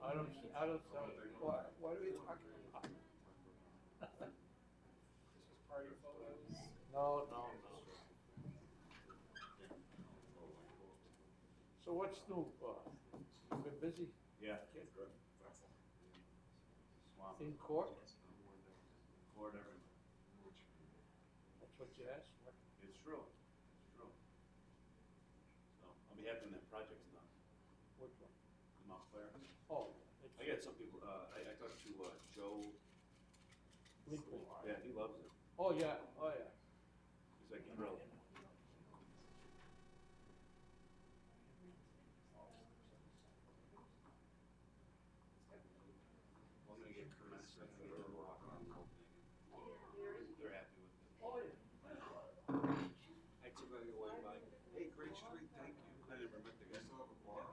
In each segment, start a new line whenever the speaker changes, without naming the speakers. I don't, I don't, I don't-
Why, why do we talk? Christmas party photos.
no, no, no. So what's new, uh, you been busy
Yeah. Swamp,
in court?
Florida, everywhere.
That's what you asked for.
It's true, it's true. So, I'll be happy when that project's done,
Which one?
I'm out there.
Oh,
I
it's
got some people, uh, I, I talked to, uh, Joe,
Lincoln.
yeah, he loves it,
Oh, yeah, oh, yeah.
he's like thrilled. I'm gonna get Kermit, so I'm gonna go walk around Copenhagen. They're happy with it.
Oh, yeah.
I took my away by, hey, great street, thank you. I never met the guy.
have a bar. So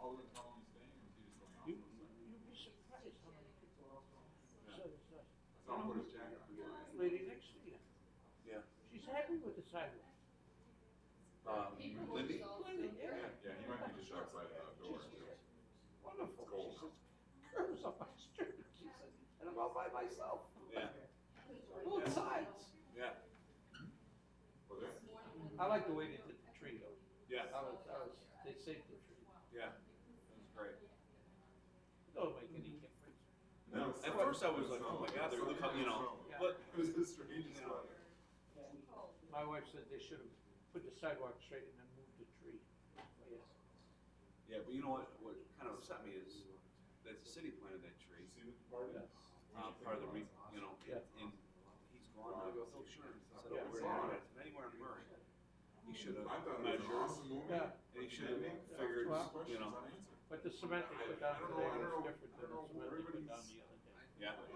all the time he's staying, or is he just going
You,
out?
you'd be surprised how many people are
Yeah.
outside. So it's nice.
So I'll put his jacket on.
Lady next to you.
Yeah.
She's happy with the sidewalk.
Um, Lindy?
Linda, yeah.
Yeah, he might be just outside the door.
She's wonderful. She says, curves on my street. She says, and I'm all by myself.
Yeah,
Both sides.
yeah,
Was there?
I like the way they did the tree though.
yeah,
I was, I was, they saved the tree.
yeah. That's great.
It Don't make any difference.
No, at first I was like, oh my God, they're really coming, you know, but,
It was the strangest
Yeah.
one.
My wife said they should have put the sidewalk straight and then moved the tree. Yes.
yeah, but you know what, what kind of upset me is that the city planted that tree,
You see the
Oh,
party?
uh, part of the re, you know,
Yeah.
and he's gone, I go, oh, sure. I said,
Yeah.
"Oh, where are you?" Anywhere in Murray. He should
I thought
have
it was an
measured,
awesome movie.
Yeah.
and he should have figured,
Well-
you know,
Questions unanswered.
But the cement they put down today was different than the cement they put down the other day.
yeah,